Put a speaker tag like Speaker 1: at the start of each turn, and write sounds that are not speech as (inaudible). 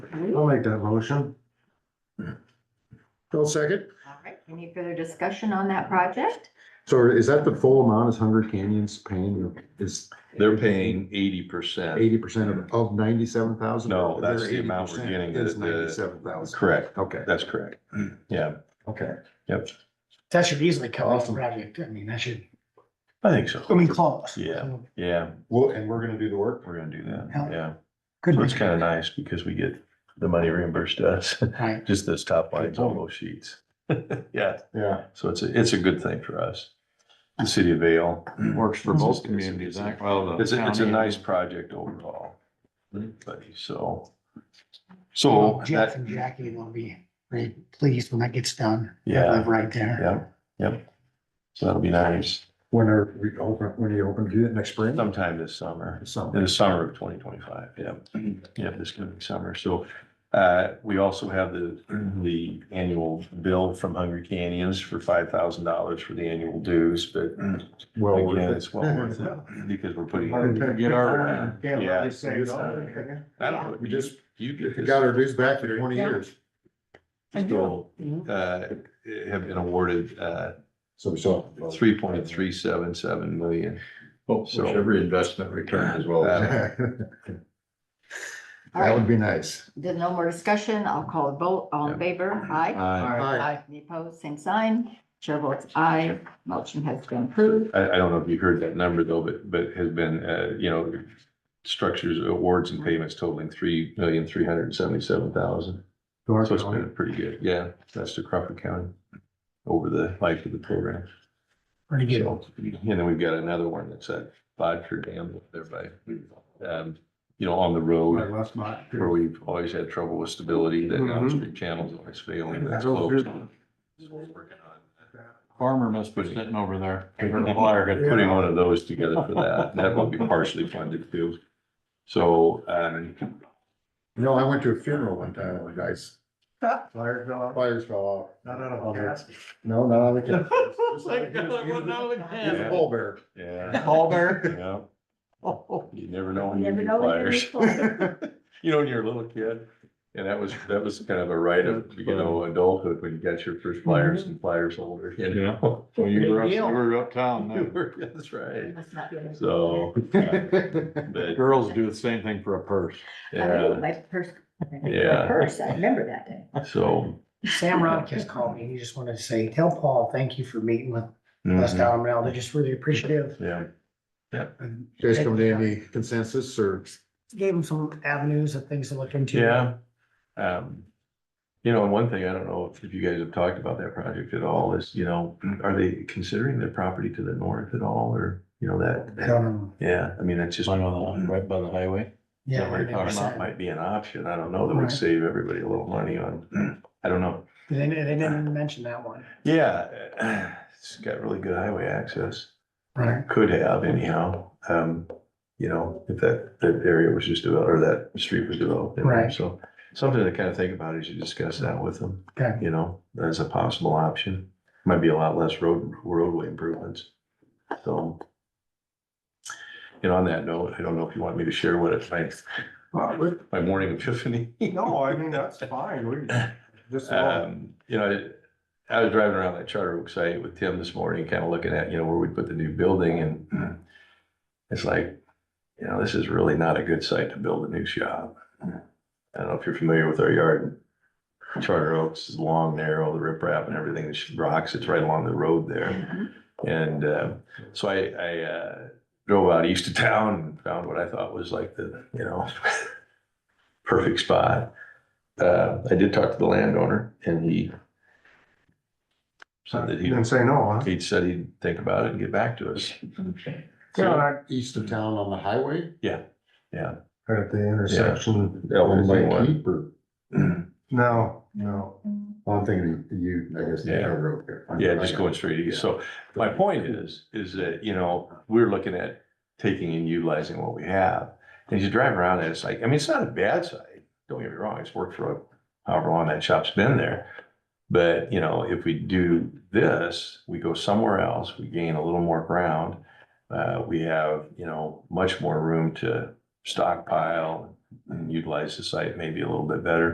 Speaker 1: I'll make that motion.
Speaker 2: I'll second.
Speaker 3: All right, any further discussion on that project?
Speaker 1: So is that the full amount is Hunger Canyon's paying, or is
Speaker 4: They're paying eighty percent.
Speaker 1: eighty percent of, of ninety-seven thousand?
Speaker 4: No, that's the amount we're getting,
Speaker 1: Is
Speaker 4: the- the-
Speaker 1: ninety-seven thousand,
Speaker 4: Correct,
Speaker 1: okay,
Speaker 4: that's correct.
Speaker 5: Hmm.
Speaker 4: Yeah,
Speaker 1: okay.
Speaker 4: yep,
Speaker 2: That should easily cover the
Speaker 1: Awesome.
Speaker 2: project. I mean, that should,
Speaker 4: I think
Speaker 2: I
Speaker 4: so.
Speaker 2: mean, close.
Speaker 4: Yeah, yeah,
Speaker 1: Well, and we're gonna do the work?
Speaker 4: we're gonna do that,
Speaker 2: Yeah.
Speaker 4: yeah.
Speaker 2: Good.
Speaker 4: So it's kind of nice because we get the money reimbursed to us, (laughs)
Speaker 2: Right.
Speaker 4: just those top
Speaker 1: Good
Speaker 4: lines
Speaker 1: point.
Speaker 4: on those sheets. (laughs) Yeah,
Speaker 1: Yeah,
Speaker 4: so it's a, it's a good thing for us. The city of Vale.
Speaker 5: Works for
Speaker 2: Mm-hmm.
Speaker 5: both communities, act- well. the
Speaker 4: It's, a- it's a
Speaker 5: county-
Speaker 4: nice project overall. But so, so
Speaker 2: Jeff
Speaker 4: that,
Speaker 2: and Jackie will be very pleased when that gets done.
Speaker 4: Yeah.
Speaker 2: Live Right there.
Speaker 4: yeah, yep. So that'll be nice
Speaker 1: when are we open, when are you open to do that next spring?
Speaker 4: sometime this summer. in
Speaker 1: Something.
Speaker 4: the summer of twenty twenty-five, yeah, yeah, this coming summer, so. Uh, we also have the, the annual bill from Hungry Canyons for five thousand dollars for the annual dues, but
Speaker 1: Well, worth
Speaker 4: again,
Speaker 1: it.
Speaker 4: it's well
Speaker 1: (laughs)
Speaker 4: worth it, because we're putting.
Speaker 5: Hard to Get our,
Speaker 1: Yeah,
Speaker 4: Yeah.
Speaker 1: let me say it all.
Speaker 4: I don't know,
Speaker 1: We just,
Speaker 4: you get
Speaker 1: we
Speaker 4: this.
Speaker 1: got our dues back for twenty years,
Speaker 4: Still, uh, have been awarded, uh,
Speaker 1: so we saw.
Speaker 4: three point three seven seven million.
Speaker 5: which
Speaker 4: So-
Speaker 5: every investment returns as well.
Speaker 4: Uh,
Speaker 1: That
Speaker 3: All right,
Speaker 1: would be nice.
Speaker 3: then no more discussion. I'll call a vote. All in favor? Aye.
Speaker 4: I,
Speaker 1: Aye.
Speaker 3: Any opposed? Same sign. Chair votes aye. Motion has been approved.
Speaker 4: I don't know if you heard that number though, but, but has been, uh, you know, structures, awards and payments totaling three million, three hundred and seventy-seven thousand.
Speaker 1: To our
Speaker 4: So it's
Speaker 1: county.
Speaker 4: been pretty good, yeah, that's to Crawford County over the life of the program.
Speaker 2: Pretty good.
Speaker 4: So, and then we've got another one that's at Bodker Dam up there by, um, you know, on the
Speaker 1: I
Speaker 4: road
Speaker 1: left my.
Speaker 4: where we've always had trouble with stability, that
Speaker 2: Mm-hmm.
Speaker 5: Mhm.
Speaker 4: downstream channel's always failing, that's
Speaker 5: Go
Speaker 4: closed.
Speaker 5: through.
Speaker 4: That's what we're working on.
Speaker 5: Farmer must be sitting over there. The flyer got-
Speaker 4: Putting one of those together for that, that will be partially funded too. So, um,
Speaker 1: No, I went to a funeral one time, with guys. Fire fell out. Fires fell out. Not out of the. Oh No, not out of (laughs) the. It's a
Speaker 4: Yeah.
Speaker 1: bull bear.
Speaker 4: (laughs) yeah,
Speaker 2: Ball bear.
Speaker 4: you
Speaker 5: (laughs)
Speaker 4: know, you never know when you
Speaker 3: Never
Speaker 4: need
Speaker 3: know when you're
Speaker 4: flyers. You know, when you're a little kid, and that was, that was kind of a rite of, you know, adulthood when you got your first flyers and flyers older, you know? (laughs)
Speaker 5: Well, you were, up- you were uptown then.
Speaker 4: That's right,
Speaker 3: Must not be in this.
Speaker 4: so, but,
Speaker 5: Girls do the same thing for a purse.
Speaker 3: I remember
Speaker 4: yeah,
Speaker 3: My purse, my
Speaker 4: yeah,
Speaker 3: purse, I remember that day.
Speaker 4: so.
Speaker 2: Sam Ronkus called me. He just wanted to say, tell Paul, thank you for meeting with us
Speaker 4: mhm,
Speaker 2: down in They're just really appreciative.
Speaker 4: mm, Yeah,
Speaker 2: And
Speaker 1: Guys come to any consensus or?
Speaker 2: Gave him some avenues and things to look into.
Speaker 4: yeah. Um, you know, and one thing, I don't know if you guys have talked about that project at all, is, you know, are they considering their property to the north at all, or, you know,
Speaker 2: I
Speaker 4: that?
Speaker 2: don't know.
Speaker 4: Yeah, I mean, it's just.
Speaker 5: Like on the, right by the highway.
Speaker 2: Um, Yeah.
Speaker 4: Or
Speaker 2: I never
Speaker 4: not
Speaker 2: said.
Speaker 4: might be an option, I don't know, that would
Speaker 2: Right.
Speaker 4: save everybody a little money on, (clears throat) I don't know.
Speaker 2: They didn't, they didn't even mention that one.
Speaker 4: Yeah, (clears throat) it's got really good highway access,
Speaker 2: Right.
Speaker 4: could have anyhow, um, you know, if that, that area was just developed, or that street was developed. in there.
Speaker 2: Right.
Speaker 4: So, something to kind of think about as you discuss that with them,
Speaker 2: Okay.
Speaker 4: you know, as a possible option, might be a lot less road, roadway improvements, so. And on that note, I don't know if you want me to share what it's like, my morning epiphany.
Speaker 1: No, I mean, that's fine, we, just.
Speaker 4: Um, you know, I was driving around that Charter Oak site with Tim this morning, kind of looking at, you know, where we put the new building and (clears throat) it's like, you know, this is really not a good site to build a new shop. I don't know if you're familiar with our yard. Charter Oaks is long, narrow, the riprap and everything, the rocks, it's right along the road there. And uh, so I, I uh, drove out east of town and found what I thought was like the, you know, (laughs) perfect spot. Uh, I did talk to the landowner and he said that
Speaker 1: You
Speaker 4: he,
Speaker 1: didn't say no, huh?
Speaker 4: he said he'd think about it and get back to us.
Speaker 3: (laughs)
Speaker 1: Yeah, not east of town on the highway?
Speaker 4: Yeah, yeah.
Speaker 1: Right At the intersection.
Speaker 4: Yeah.
Speaker 1: Owned by
Speaker 4: Yeah.
Speaker 1: Keep
Speaker 4: (clears throat)
Speaker 1: or- No, no. Well, I'm thinking you, I guess. the
Speaker 4: Yeah.
Speaker 1: town road there.
Speaker 4: Yeah, just going straight east. So my point is, is that, you know, we're looking at taking and utilizing what we have. And as you drive around and it's like, I mean, it's not a bad site. Don't get me wrong. It's worked for however long that shop's been there. But, you know, if we do this, we go somewhere else, we gain a little more ground. Uh, we have, you know, much more room to stockpile, and utilize the site maybe a little bit better.